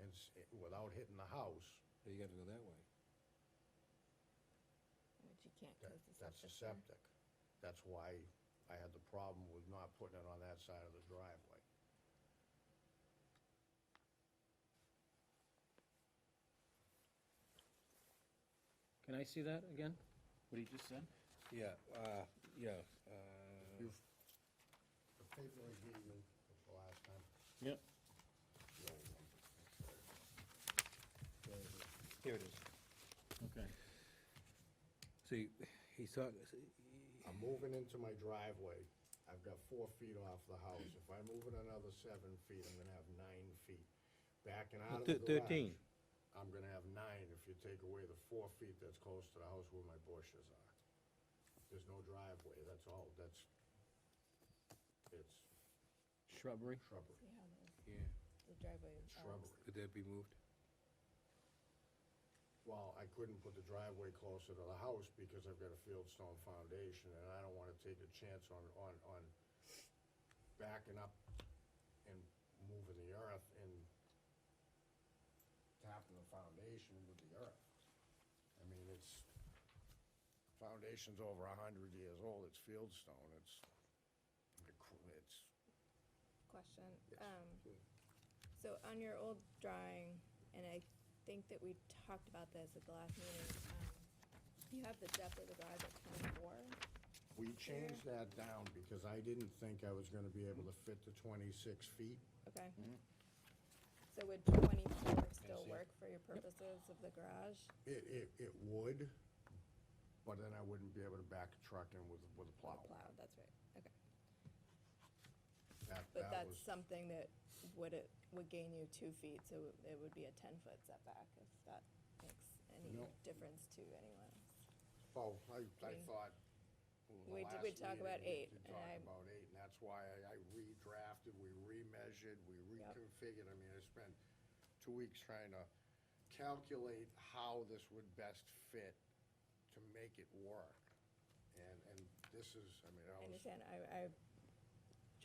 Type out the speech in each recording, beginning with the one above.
and, s- eh, without hitting the house, Oh, You gotta go that way. But you can't, that, because it's up that's a to septic. That's why I had the problem with not putting it on that side of the driveway. Can I see that again? What he just said? Yeah, uh, yeah, uh, You've, the paper I gave you the last time, Yep. the old one. here it is. Okay. See, he thought, I'm moving into my driveway, I've got four feet off the house, if I move it another seven feet, I'm gonna have nine feet. Backing out of the Thir- 13. garage. I'm gonna have nine if you take away the four feet that's close to the house where my bushes are. There's no driveway, that's all, that's, it's Shrubbery? shrubbery, See how the- yeah, the driveway. it's uh, shrubbery. could that be moved? Well, I couldn't put the driveway closer to the house because I've got a fieldstone foundation and I don't wanna take a chance on, on, on backing up and moving the earth and tapping the foundation with the earth. I mean, it's, foundation's over a hundred years old, it's fieldstone, it's, it's, Question, Yes. um, so on your old drawing, and I think that we talked about this at the last meeting, um, you have the depth of the garage at twenty-four, we changed that down because I didn't think I was gonna be able to fit the twenty-six feet. okay? Mm-hmm. So would twenty-four Yes, still yeah. work for your purposes of the garage? It, it, it would, but then I wouldn't be able to back a truck in with, with a Or plow. Plowed, that's right, okay. That, But that that's was, something that would it, would gain you two feet, so it would be a ten-foot setback, if that makes any No. difference to anyone. else. oh, I, I We- thought. well, the we d- last we talked about meeting eight, We and did talk I- about eight, and that's why I I redrafted, we remeasured, we Yep. reconfigured. I mean, I spent two weeks trying to calculate how this would best fit to make it work. And, and this is, I mean, I I was understand, I, I'm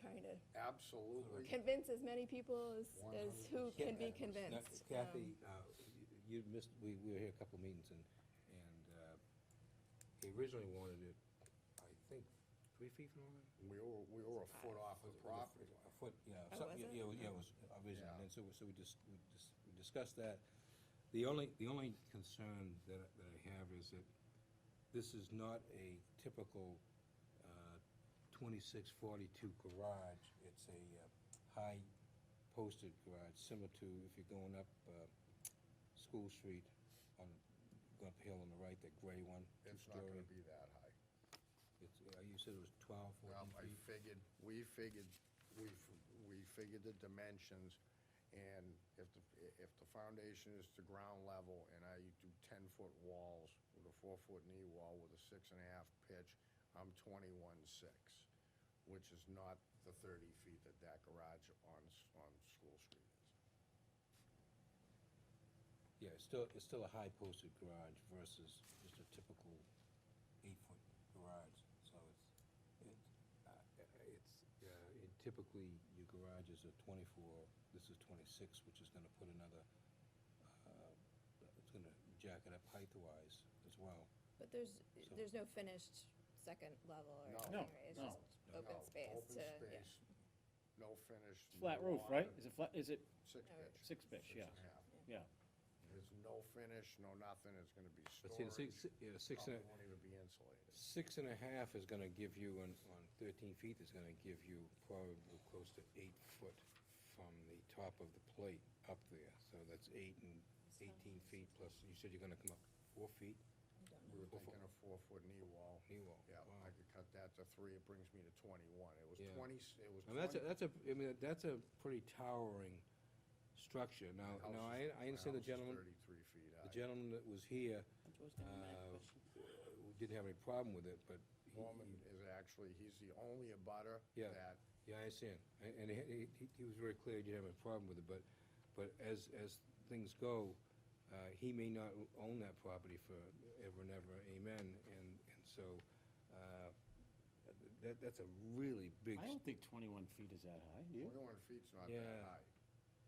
trying to absolutely. convince as many people as, as who can be 100%. convinced. um, Kathy, uh, you you missed, we, we were here a couple of meetings and, and, uh, he originally wanted it, I think, three feet from the line? We were, we were a foot off the Was it- was it property A foot, yeah, Oh, something, was yeah, it? yeah, it was originally, Yeah. and so, we- so we just, we just, we discussed that. The only, the only concern that, I- that I have is that this is not a typical, uh, twenty-six forty-two garage. It's a, uh, high posted garage, similar to if you're going up, uh, School Street on, go up the hill on the right, that gray one, It's not gonna two-story. be that high. It's, uh, you said it was twelve, Well, fourteen I feet? figured, we figured, we, f- we figured the dimensions, and if the, if the foundation is to ground level, and I do ten-foot walls with a four-foot knee wall with a six-and-a-half pitch, I'm twenty-one-six, which is not the thirty feet that that garage on, S- on School Street is. Yeah, it's still, it's still a high posted garage versus just a typical eight-foot garage, so it's, it's, uh, it's, uh, it typically, your garages are twenty-four, this is twenty-six, which is gonna put another, uh, it's gonna jack it up height-wise as well. But there's, So- there's no finished second level No. or anything, No, right? It's just No, open space open to, yeah. space, No finish. no Flat roof, water, right? Is it flat, is it, Six Oh, yeah. pitch. Six pitch, yeah. Six-and-a-half. yeah. There's no finish, no nothing, it's gonna be But see, the storage. six, yeah, six, and Probably a- won't even be insulated. six and a half is gonna give you, on, on thirteen feet, is gonna give you probably close to eight foot from the top of the plate up there, so that's eight and eighteen feet plus, you said you're gonna come up four feet? We were Four foot. thinking a four-foot knee wall. Knee wall, Yeah, wow. I could cut that to three, it brings me to twenty-one. It was Yeah. twenty, it was And that's, a twenty. that's a, I mean, that's a pretty towering structure. Now, My now, house I, is- I my understand the house is gentleman, Thirty-three feet the high. gentleman that was here, uh, didn't have any problem with it, but. he- Norman is actually, he's the only abutter Yeah. that, Yeah, I understand. And, and he, he- he was very clear, he didn't have a problem with it, but, but as, as things go, uh, he may not own that property for ever and ever, amen, and, and so, uh, that, that's a really big. I don't think twenty-one feet is that high, do you? twenty-one feet's not that Yeah, high.